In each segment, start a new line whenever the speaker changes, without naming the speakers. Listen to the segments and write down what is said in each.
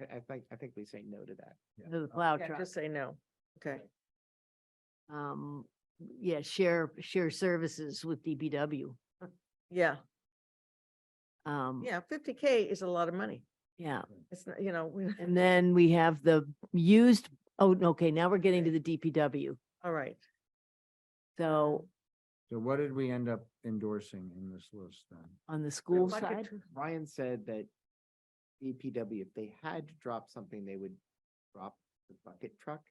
I, I think, I think we say no to that.
the plow
Yeah,
truck.
just say no. Okay,
Um, yeah, share, share services with DPW.
yeah,
Um,
yeah, fifty K is a lot of money.
yeah.
It's, not, you know, we-
And then we have the used, oh, no, okay, now we're getting to the DPW.
all right.
So
So what did we end up endorsing in this list then?
on the school
Like a
side,
tw-
Ryan said that DPW, if they had to drop something, they would drop the bucket truck.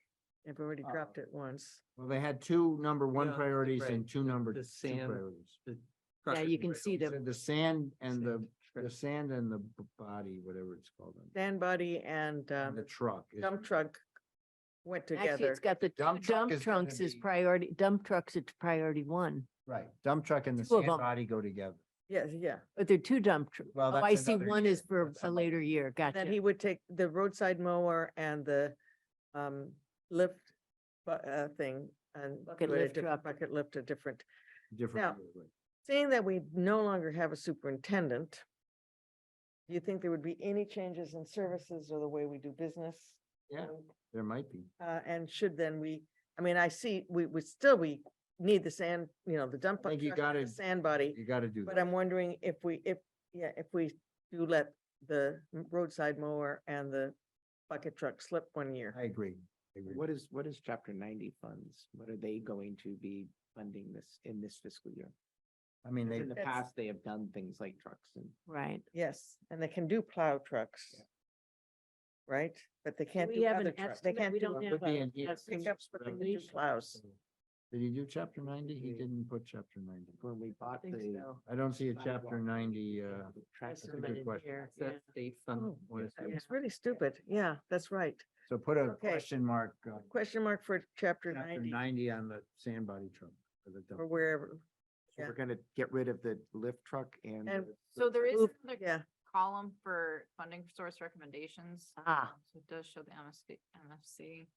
They've already
Oh.
Uh,
dropped it once.
Well, they had two number one
Yeah,
priorities and
right,
two number
the
two
sand
priorities.
yeah, you can see
You
the,
said The sand and the,
Sand,
the sand and the b- body, whatever it's called, and-
Dan Body and
and the
um,
truck. is-
dump truck went
actually,
together.
it's got the
Dump truck
dump
is gonna
trunks is
be-
priority, dump trucks is priority one.
Right, dump truck and the
Two of
sand
them.
body go together.
Yes, yeah.
But they're two dump trucks.
Well,
Oh,
that's
I see
another
one
year.
is for
That's
a
another-
later year. Gotcha.
Then he would take the roadside mower and the um lift bu- uh thing and.
Bucket
do it a
lift truck.
different- Bucket lift a different.
Different.
Now-
year, right.
Seeing that we no longer have a superintendent, do you think there would be any changes in services or the way we do business?
Yeah.
Um,
There might be.
Uh, and should then we, I mean, I see, we, we still, we need the sand, you know, the dump.
I think you
truck and the
gotta-
Sand body.
You gotta do
But
that.
I'm wondering if we, if, yeah, if we do let the m- roadside mower and the bucket truck slip one year.
I agree. I agree.
What is, what is chapter ninety funds? What are they going to be funding this, in this fiscal year?
I mean, they,
In the
That's-
past, they have done things like trucks and
Right.
Yes, and they can do plow trucks. Right? But they can't
we
do
have
other
an
trucks. They
estimate?
can't
We
do
don't
it
have
would be
a-
in here.
a fixed
pickups, but they can do
reservation.
plows.
did he do chapter ninety? He
Yeah.
didn't put chapter ninety.
when we
I
bought
think
the.
so.
I don't see a
sidewalk,
chapter ninety, uh,
the
That's
tractor-
a good
submitted
question.
here, yeah.
That's based on.
Oh,
what is
That
it?
was really stupid. Yeah, that's right.
so put a
Okay.
question mark, uh,
Question mark for chapter
chapter
ninety
ninety on the sand body truck. for the
or
dump.
wherever.
So
Yeah.
We're gonna get rid of the lift truck and.
And
the-
So there is
Oof,
another
Yeah,
column for funding source recommendations.
Ah.
um, So it does show the MSC, MFC,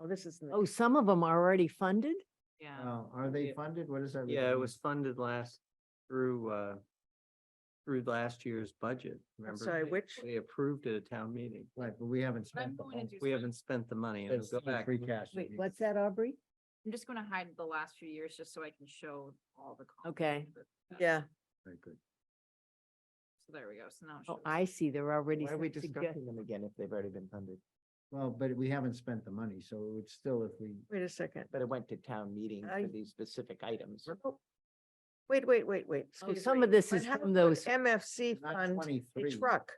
oh, this is. in the-
Oh, some of them are already funded?
yeah.
Oh, are they
Yeah.
funded? What is that?
Yeah, it
represent?
was funded last through, uh, through last year's budget. remember?
sorry,
They-
which-
They approved at a town meeting.
Right, but we haven't
But I'm
spent the
going to
whole.
do
We
some-
haven't spent the money. It'll
That's
go
the
back.
Free cash. that
Wait,
you-
what's that, Aubrey?
I'm just gonna hide the last few years just so I can show all the. columns
Okay.
of it.
Yeah,
Very good.
So there we go. So now. it
Oh,
shows-
I see. They're already.
Why are we
some sugge-
discussing them again if they've already been funded?
Well, but we haven't spent the money, so it would still, if we,
wait a second.
But it went to town meeting
I-
for these specific items.
Oh, Wait, wait, wait, wait.
Oh,
excuse
some
me.
of this
But
is
how
from
could
those,
MFC
not
fund a
twenty-three.
truck.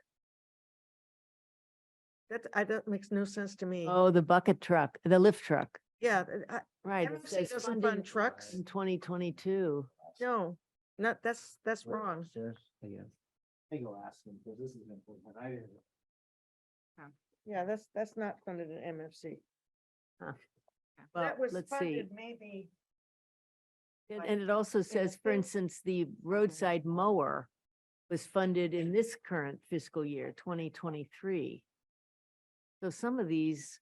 That, I, that makes no sense to me.
oh, the bucket truck, the lift truck,
Yeah, th- I-
right. It
MFC
says
doesn't
funding
fund trucks.
in twenty twenty-two.
No, not, that's, that's
Wait,
wrong.
Sarah?
I think I'll ask them, because this is important, I didn't.
Yeah, that's, that's not funded in MFC.
Well,
That was
let's see.
funded maybe.
And,
by-
and it also says, for
thing.
instance, the
Mm-hmm.
roadside mower was funded in this current fiscal year, twenty twenty-three. So some of these,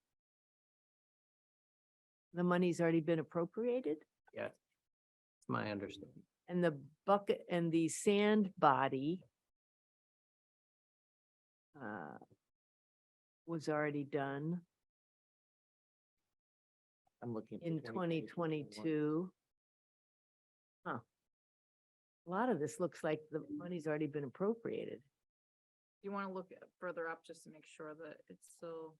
the money's already been appropriated?
Yeah. It's my understanding.
And the bucket and the sand body uh, was already done
I'm looking. for
in twenty
2022.
twenty-two. Huh. A lot of this looks like the money's already been appropriated.
You wanna look at- further up just to make sure that it's still.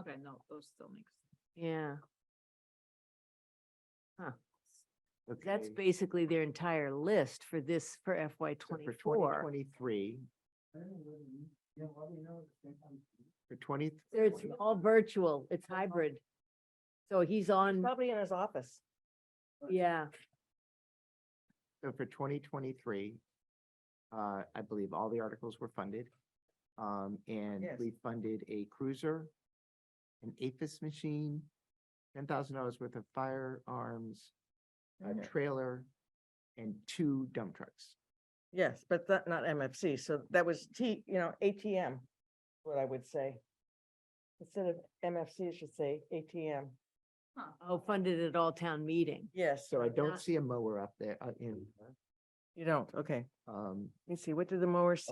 Okay, no, those still makes.
Yeah, that's
Okay,
basically their entire list for this, for FY
so for
twenty-four.
2023, for twenty.
There, It's all virtual, it's hybrid. So he's on,
Probably in his office.
yeah,
So for twenty twenty-three, uh, I believe all the articles were funded. Um, and
Yes.
we funded a cruiser, an Aphis machine, ten thousand dollars worth of firearms, a
Yeah.
trailer, and two dump trucks.
Yes, but that, not MFC. So that was T, you know, ATM, what I would say. Instead of MFC, it should say ATM.
Huh.
oh, funded at all town meeting.
Yes,
So I
Ah.
don't see a mower up there, uh, in,
you don't. Okay.
um,
Let me see, what did the mower say?